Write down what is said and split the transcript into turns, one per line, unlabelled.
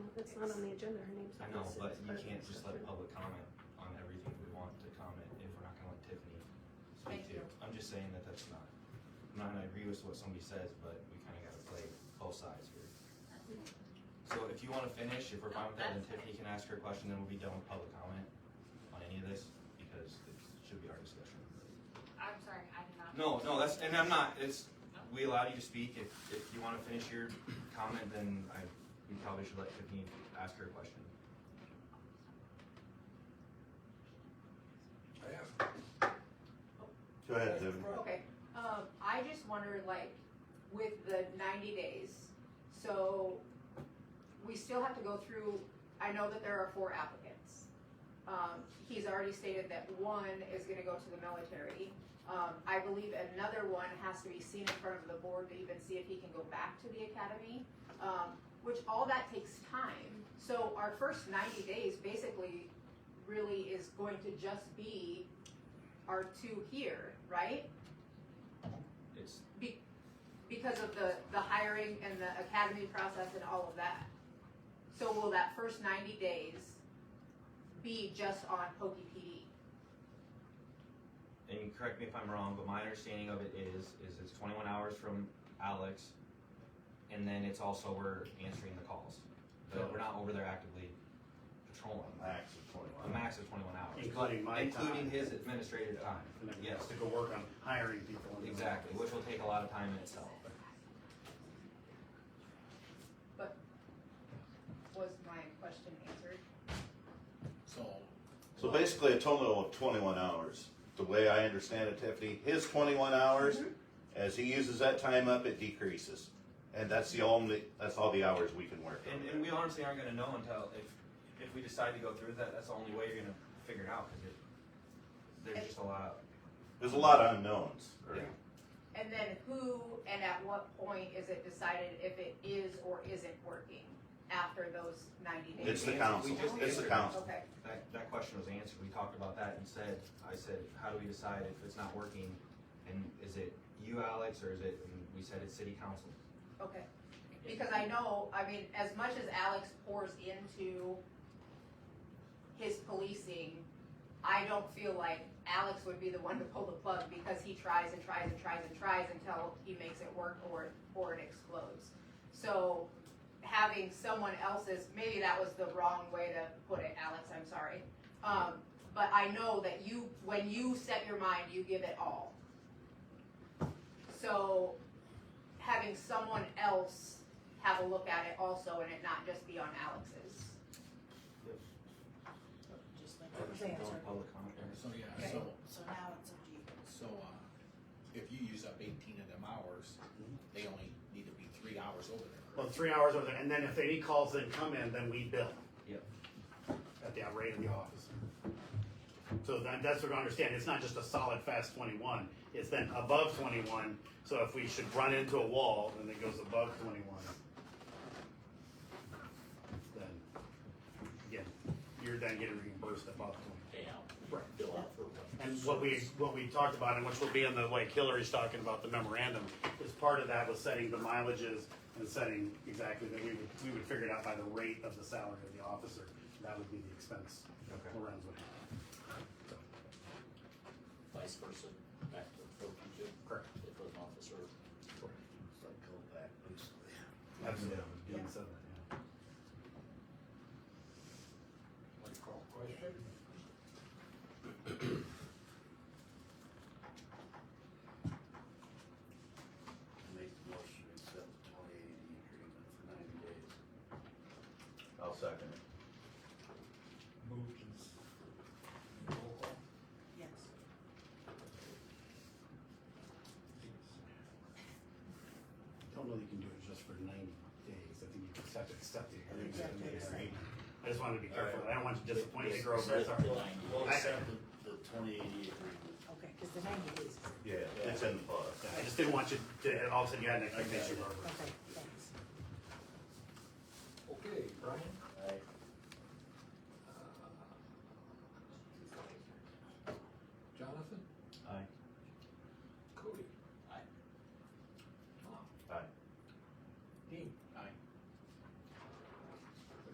It's not on the agenda, her name's.
I
not
know,
listed
but
as
you
part of
can't
the
just let
discussion.
public comment on everything we want to comment if we're not gonna let Tiffany
Thank
speak to.
you.
it. I'm just saying that that's not, I'm not gonna agree with what somebody says, but we kinda gotta play both sides here. So if you wanna finish, if we're fine with that, then
That's fine.
Tiffany can ask her question, then we'll be done with public comment on any of this, because it should be our discussion.
I'm sorry, I did not.
No, no, that's, and I'm not, it's,
No.
we allow you to speak, if, if you wanna finish your comment, then I, we probably should let Tiffany ask her question.
Go ahead, Tim.
Okay, um, I just wonder, like, with the ninety days, so we still have to go through, I know that there are four applicants. Um, he's already stated that one is gonna go to the military. Um, I believe another one has to be seen in front of the board to even see if he can go back to the academy. Um, which all that takes time, so our first ninety days basically really is going to just be our two here, right?
It's,
Be- because of the, the hiring and the academy process and all of that. So will that first ninety days be just on Pokey PD?
and you correct me if I'm wrong, but my understanding of it is, is it's twenty-one hours from Alex, and then it's also we're answering the calls. But we're not over there actively patrolling,
Max of
a
twenty-one.
max of twenty-one hours.
Including my
Including
time.
his administrative time,
And then we
yes,
have to go work on hiring people. and-
exactly, which will take a lot of time in itself.
Was my question answered?
So,
So basically a total of twenty-one hours. The way I understand it, Tiffany, his twenty-one hours, as he uses that time up, it decreases. And that's the only, that's all the hours we can work.
And, and we honestly aren't gonna know until, if, if we decide to go through that, that's the only way you're gonna figure it out, cause it, there's just a lot,
There's a lot of unknowns.
Yeah.
And then who and at what point is it decided if it is or isn't working after those ninety days?
It's the
We
council,
just
it's the
answered.
council.
Okay,
That, that question was answered, we talked about that and said, I said, how do we decide if it's not working? And is it you, Alex, or is it, and we said it's city council.
okay. Because I know, I mean, as much as Alex pours into his policing, I don't feel like Alex would be the one to pull the plug because he tries and tries and tries and tries until he makes it work or, or it explodes. So having someone else's, maybe that was the wrong way to put it, Alex, I'm sorry. Um, but I know that you, when you set your mind, you give it all. So having someone else have a look at it also and it not just be on Alex's.
Just like it was answered.
Public comment.
so yeah,
Okay.
so,
So now it's up to you.
so, uh, if you use up eighteen of them hours,
Mm-hmm.
they only need to be three hours over there.
Well, three hours over there, and then if any calls then come in, then we bill.
Yep.
At the rate of the office. So that, that's what I understand, it's not just a solid fast twenty-one, it's then above twenty-one, so if we should run into a wall, then it goes above twenty-one. Then, again, you're then getting reimbursed above twenty.
Yeah.
Right.
Bill out for what?
And what we, what we talked about, and which will be in the, like Hillary's talking about the memorandum, is part of that was setting the mileages and setting exactly that we would, we would figure it out by the rate of the salary of the officer. That would be the expense
Okay.
Lorenz would have.
vice versa, back to the program too,
Correct.
if an officer.
Absolutely.
Yeah.
Yeah, so that,
Make the motion to accept the twenty eighty agreement for ninety days.
I'll second it.
Moved and. Roll call.
Yes.
yeah. Don't know that you can do it just for ninety days, I think you just have to accept it.
Exactly.
I just wanted to be careful, I don't want you to disappoint the girls,
Accept
I'm sorry.
the- We'll accept the, the twenty eighty agreement.
Okay, because the ninety days is,
Yeah, it's in the book.
I just didn't want you to, all of a sudden you had an expectation of over.
okay, thanks.
Okay, Brian?